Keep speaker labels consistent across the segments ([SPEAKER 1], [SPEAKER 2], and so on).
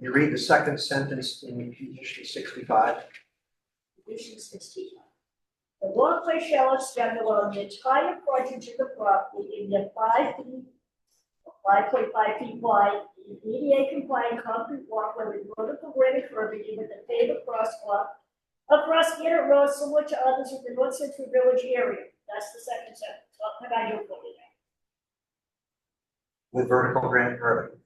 [SPEAKER 1] you read the second sentence in condition sixty-five,
[SPEAKER 2] Condition sixty-five. The walkway shall extend along the entire frontage of the property in the five feet, five point five feet wide, ADA compliant concrete walkway with vertical granite curbing with a paved crosswalk across Gator Road similar to others in the North Central Village area. That's the second sentence, what can I do for you?
[SPEAKER 1] with vertical granite curving.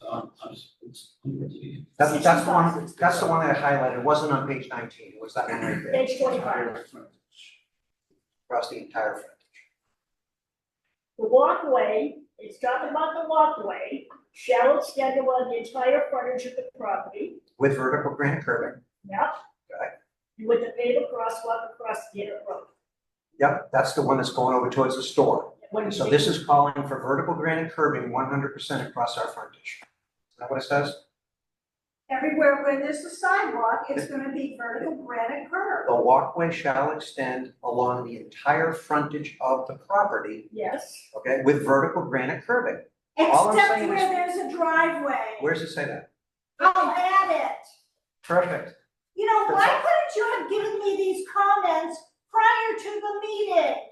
[SPEAKER 3] Um, I'm s- it's- it's-
[SPEAKER 1] That's, that's the one, that's the one I highlighted, it wasn't on page nineteen, it was that one right there,
[SPEAKER 2] Page twenty-five.
[SPEAKER 1] across the entire front.
[SPEAKER 2] The walkway, it's talking about the walkway, shall extend along the entire frontage of the property.
[SPEAKER 1] With vertical granite curving,
[SPEAKER 2] Yep.
[SPEAKER 1] Okay.
[SPEAKER 2] With the paved crosswalk across Gator Road.
[SPEAKER 1] yep, that's the one that's going over towards the store.
[SPEAKER 2] What do you
[SPEAKER 1] So
[SPEAKER 2] think?
[SPEAKER 1] this is calling for vertical granite curving one hundred percent across our frontage. Is that what it says?
[SPEAKER 4] Everywhere where there's a sidewalk, it's gonna be vertical granite curb.
[SPEAKER 1] The walkway shall extend along the entire frontage of the property,
[SPEAKER 2] Yes,
[SPEAKER 1] okay, with vertical granite curving. All I'm
[SPEAKER 4] Except
[SPEAKER 1] saying
[SPEAKER 4] where
[SPEAKER 1] is-
[SPEAKER 4] there's a driveway.
[SPEAKER 1] Where does it say that?
[SPEAKER 4] I'll add it.
[SPEAKER 1] Perfect.
[SPEAKER 4] You know, why
[SPEAKER 1] That's-
[SPEAKER 4] couldn't you have given me these comments prior to the meeting?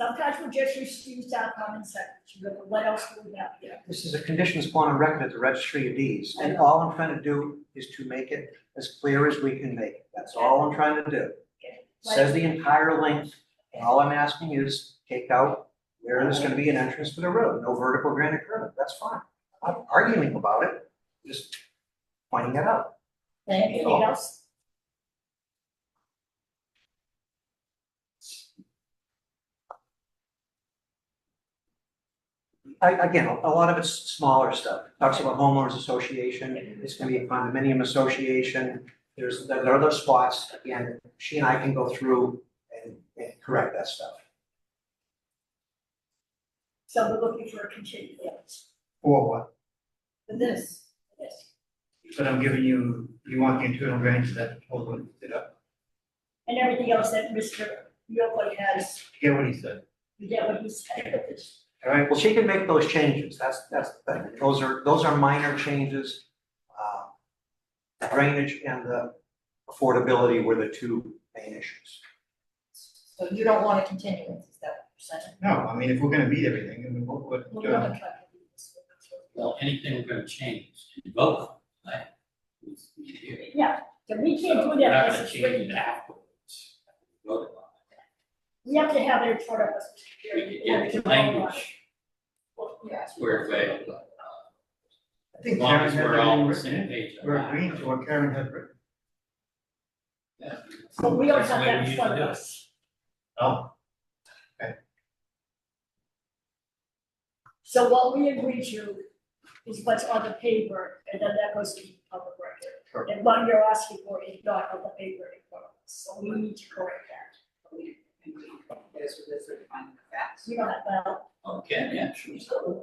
[SPEAKER 2] sometimes we just use, use our common sense, you know, what else do we have here?
[SPEAKER 1] This is a conditions upon a record at the registry of deeds, and all I'm trying to do is to make it as clear as we can make it. That's all I'm trying to do. Says the entire length, and all I'm asking is take out where there's gonna be an entrance to the road, no vertical granite curving, that's fine. I'm not arguing about it, just pointing it out.
[SPEAKER 2] Anything else?
[SPEAKER 1] I, again, a a lot of it's smaller stuff, talks about homeowners association, it's gonna be a condominium association. There's, there are other spots, again, she and I can go through and, and correct that stuff.
[SPEAKER 2] So we're looking for a continuance
[SPEAKER 1] Or what?
[SPEAKER 2] for this, this.
[SPEAKER 5] But I'm giving you, you want the internal range that hold on, did I
[SPEAKER 2] And everything else that Mr. Yocum has,
[SPEAKER 5] get what he said?
[SPEAKER 2] you get what he's saying.
[SPEAKER 5] All right,
[SPEAKER 1] Well, she can make those changes, that's, that's the thing, those are, those are minor changes. Uh, Drainage and the affordability were the two main issues.
[SPEAKER 6] So you don't want a continuance, is that what
[SPEAKER 5] no, I mean, if we're gonna meet everything, and we will what,
[SPEAKER 2] We're
[SPEAKER 5] uh,
[SPEAKER 2] gonna try to do this.
[SPEAKER 3] Well, anything we're gonna change and vote on, right? is here.
[SPEAKER 2] Yeah, so we can't
[SPEAKER 3] So
[SPEAKER 2] do
[SPEAKER 3] we're
[SPEAKER 2] that,
[SPEAKER 3] not
[SPEAKER 2] this
[SPEAKER 3] gonna
[SPEAKER 2] is
[SPEAKER 3] change
[SPEAKER 2] written
[SPEAKER 3] it
[SPEAKER 2] down.
[SPEAKER 3] afterwards. Vote on
[SPEAKER 2] We have to have it in front of us.
[SPEAKER 3] it. We could get the language squared away. uh,
[SPEAKER 5] I
[SPEAKER 3] As
[SPEAKER 5] think
[SPEAKER 3] long
[SPEAKER 5] Karen
[SPEAKER 3] as
[SPEAKER 5] has
[SPEAKER 3] we're all
[SPEAKER 5] everything
[SPEAKER 3] on the
[SPEAKER 5] written
[SPEAKER 3] same
[SPEAKER 5] in.
[SPEAKER 3] page. on
[SPEAKER 5] We're
[SPEAKER 3] that.
[SPEAKER 5] agreeing to what Karen had written.
[SPEAKER 3] Yeah.
[SPEAKER 2] But we don't
[SPEAKER 3] That's the
[SPEAKER 2] have
[SPEAKER 3] way
[SPEAKER 2] that
[SPEAKER 3] we
[SPEAKER 2] in front
[SPEAKER 3] usually
[SPEAKER 2] of
[SPEAKER 3] do it.
[SPEAKER 2] us.
[SPEAKER 5] Oh,
[SPEAKER 2] So what we agree to is what's on the paper, and then that goes to the public record. And what you're asking for is not on the paper in front of us, so we need to correct that.
[SPEAKER 6] Those are the finding of facts.
[SPEAKER 2] We don't have, well,
[SPEAKER 3] Okay, yeah, sure.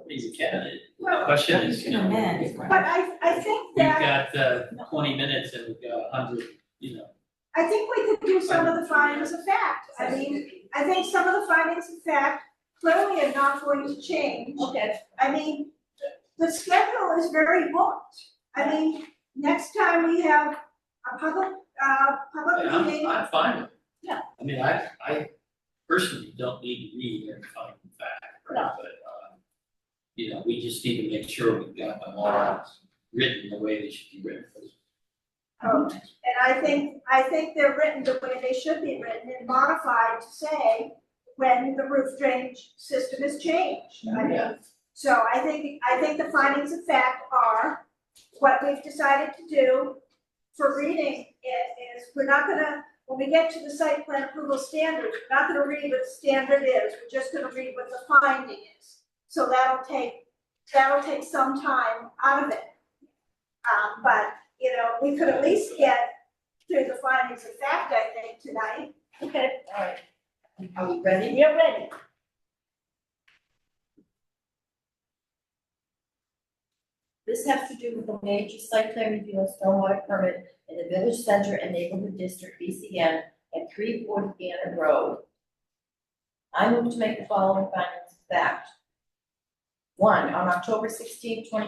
[SPEAKER 3] He's a candidate.
[SPEAKER 4] Well,
[SPEAKER 3] Question is, you know,
[SPEAKER 6] amend.
[SPEAKER 4] but I, I think
[SPEAKER 3] we've
[SPEAKER 4] that,
[SPEAKER 3] got uh, twenty minutes and we've got a hundred, you know.
[SPEAKER 4] I think we could do some of the findings of fact. I mean, I think some of the findings of fact clearly are not going to change.
[SPEAKER 2] okay,
[SPEAKER 4] I mean, the schedule is very booked. I mean, next time we have a public, uh, public
[SPEAKER 3] Yeah, I'm,
[SPEAKER 4] meeting,
[SPEAKER 3] I'm fine with it.
[SPEAKER 2] Yeah.
[SPEAKER 3] I mean, I, I personally don't need to read every fucking fact, right, but, um, you know, we just need to make sure we've got them all written the way they should be written.
[SPEAKER 4] um, and I think, I think they're written the way they should be written and modified to say when the roof drainage system is changed. I mean, so I think, I think the findings of fact are what we've decided to do for reading it is, we're not gonna, when we get to the site plan approval standard, we're not gonna read what the standard is, we're just gonna read what the finding is. So that'll take, that'll take some time out of it. Um, but, you know, we could at least get through the findings of fact, I think, tonight.
[SPEAKER 2] okay, all right.
[SPEAKER 6] Are we ready?
[SPEAKER 2] You're ready.
[SPEAKER 6] This has to do with the major site plan review and stormwater permit in the village center and neighborhood district, BCN, at three forty Gannett Road. I move to make the following findings of fact. One, on October 16, 2023.